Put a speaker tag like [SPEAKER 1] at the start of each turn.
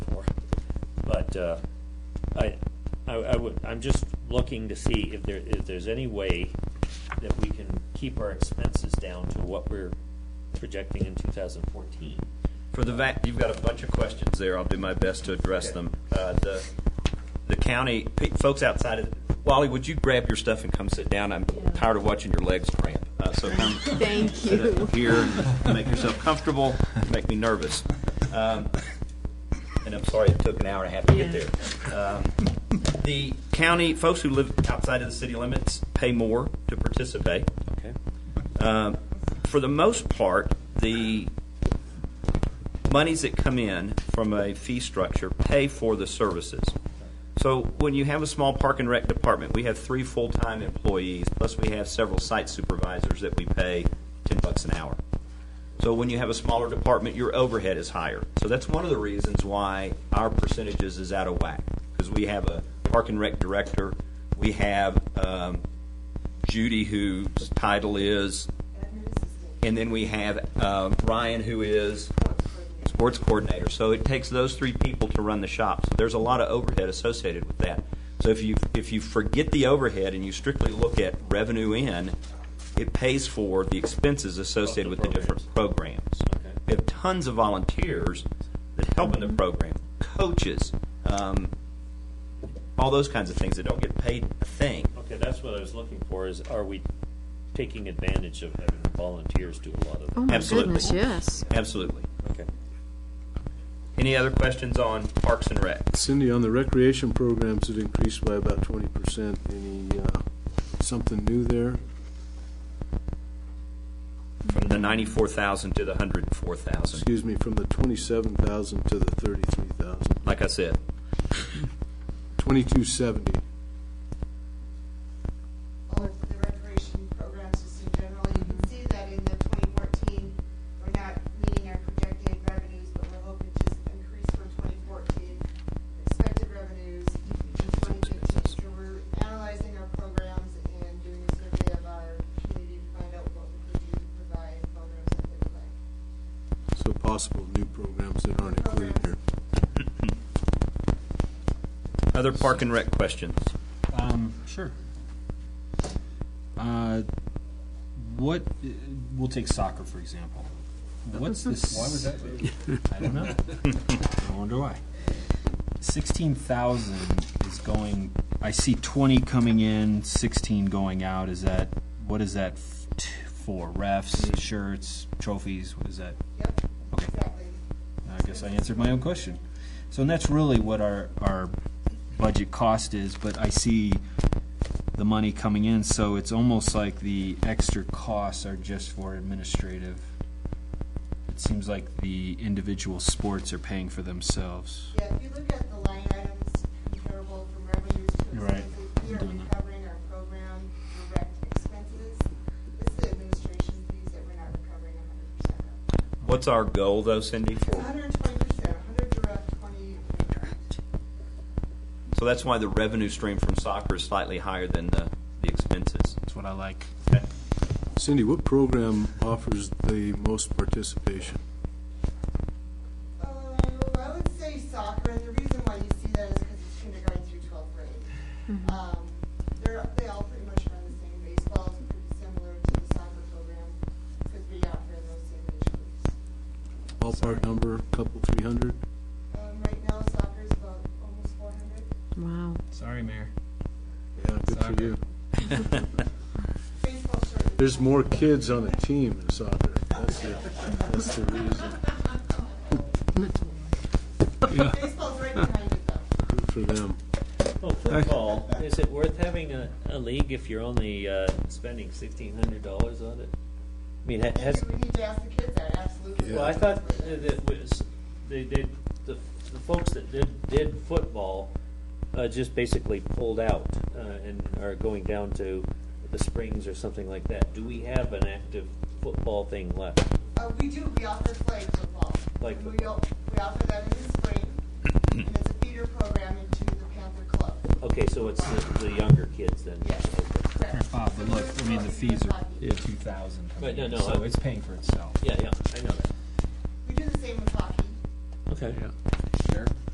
[SPEAKER 1] but, uh, I, I, I would, I'm just looking to see if there, if there's any way that we can keep our expenses down to what we're projecting in two thousand fourteen.
[SPEAKER 2] For the vac, you've got a bunch of questions there. I'll do my best to address
[SPEAKER 1] Okay.
[SPEAKER 2] them. Uh, the the county pe- folks outside of Wally, would you grab your stuff and come sit down? I'm tired of watching your legs cramp. Uh, so come
[SPEAKER 3] Thank
[SPEAKER 2] sit
[SPEAKER 3] you.
[SPEAKER 2] up here, and make yourself comfortable. You Make me nervous. Um, and I'm sorry it took an hour and a half to get
[SPEAKER 3] Yeah.
[SPEAKER 2] there. Um, the county folks who live outside of the city limits pay more to participate.
[SPEAKER 1] Okay.
[SPEAKER 2] Um, for the most part, the monies that come in from a fee structure pay for the services. So when you have a small park and rec department, we have three full-time employees, plus we have several site supervisors that we pay ten bucks an hour. So when you have a smaller department, your overhead is higher. So that's one of the reasons why our percentages is out of whack, because we have a park and rec director, we have, um, Judy, whose title is, and then we have um, Ryan, who is sports coordinator. So it takes those three people to run the shop. So there's a lot of overhead associated with that. So if you if you forget the overhead and you strictly look at revenue in, it pays for the expenses associated with the different programs.
[SPEAKER 1] Okay.
[SPEAKER 2] We have tons of volunteers that help in the program, coaches, um, all those kinds of things that don't get paid a thing.
[SPEAKER 1] Okay, that's what I was looking for, is are we taking advantage of having volunteers do a lot of?
[SPEAKER 3] Oh my
[SPEAKER 2] Absolutely.
[SPEAKER 3] goodness, yes.
[SPEAKER 2] Absolutely.
[SPEAKER 1] Okay.
[SPEAKER 2] Any other questions on Parks and Rec?
[SPEAKER 4] Cindy, on the recreation programs, it increased by about twenty percent. Any, uh, something new there?
[SPEAKER 2] From the ninety-four thousand to the hundred and four thousand,
[SPEAKER 4] Excuse me, from the twenty-seven thousand to the thirty-three thousand.
[SPEAKER 2] like I said.
[SPEAKER 4] Twenty-two seventy.
[SPEAKER 5] all of the recreation programs just in general. You can see that in the 2014, we're not meeting our projected revenues, but we're hoping to increase from 2014 expected revenues in 2015. So we're analyzing our programs and doing a survey of our community to find out what we could do to provide programs that they would like.
[SPEAKER 4] So possible new programs that aren't included here.
[SPEAKER 2] Other Park and Rec questions?
[SPEAKER 6] Um, sure. Uh, what, we'll take soccer, for example. What's this? Why was that? I don't know. I wonder why. Sixteen thousand is going, I see twenty coming in, sixteen going out. Is that, what is that f- t- for? Refs, shirts, trophies, what is that?
[SPEAKER 5] Yep,
[SPEAKER 6] Okay.
[SPEAKER 5] exactly.
[SPEAKER 6] I guess I answered my own question. So, and that's really what our, our budget cost is, but I see the money coming in, so it's almost like the extra costs are just for administrative. It seems like the individual sports are paying for themselves.
[SPEAKER 5] Yeah, if you look at the line items comparable from revenues to
[SPEAKER 6] You're right.
[SPEAKER 5] expenses, we
[SPEAKER 6] I'm
[SPEAKER 5] are
[SPEAKER 6] doing that.
[SPEAKER 5] recovering our program direct expenses. This is administration fees that we're not recovering a hundred percent of.
[SPEAKER 2] What's our goal though, Cindy?
[SPEAKER 5] It's
[SPEAKER 2] For
[SPEAKER 5] hundred and twenty percent, hundred direct, twenty indirect.
[SPEAKER 2] So that's why the revenue stream from soccer is slightly higher than the, the expenses.
[SPEAKER 6] That's what I like.
[SPEAKER 4] Cindy, what program offers the most participation?
[SPEAKER 5] Uh, I would say soccer, and the reason why you see that is because it's kindergarten through twelfth grade. Um, they're, they all pretty much run the same, baseball is pretty similar to the soccer program, because we offer those same age groups.
[SPEAKER 4] Ballpark number, couple, three hundred?
[SPEAKER 5] Um, right now, soccer is about almost four hundred.
[SPEAKER 3] Wow.
[SPEAKER 7] Sorry, Mayor.
[SPEAKER 4] Yeah, good for
[SPEAKER 7] Soccer.
[SPEAKER 4] you.
[SPEAKER 5] Baseball shortly.
[SPEAKER 4] There's more kids on a team in soccer. That's the, that's the reason.
[SPEAKER 5] Baseball's right behind it, though.
[SPEAKER 4] Good for them.
[SPEAKER 1] Well, football, is it worth having a, a league if you're only, uh, spending sixteen hundred dollars on it? I mean, ha- has,
[SPEAKER 5] Maybe we need to ask the kids that, absolutely.
[SPEAKER 1] Well, I thought that it was, they did, the, the folks that did, did football, uh, just basically pulled out, uh, and are going down to the Springs or something like that. Do we have an active football thing left?
[SPEAKER 5] Uh, we do, we offer flag football.
[SPEAKER 1] Flag
[SPEAKER 5] And We,
[SPEAKER 1] football.
[SPEAKER 5] o- we offer that in the spring, and it's a feeder program into the Panther Club.
[SPEAKER 1] Okay, so it's the, the younger kids then?
[SPEAKER 5] Yes. Correct.
[SPEAKER 6] Bob, but look, I mean, the fees are
[SPEAKER 5] Hockey.
[SPEAKER 6] two thousand,
[SPEAKER 1] Right, no, no, I-
[SPEAKER 6] so it's paying for itself.
[SPEAKER 1] Yeah, yeah, I know that.
[SPEAKER 5] We do the same with hockey.
[SPEAKER 1] Okay.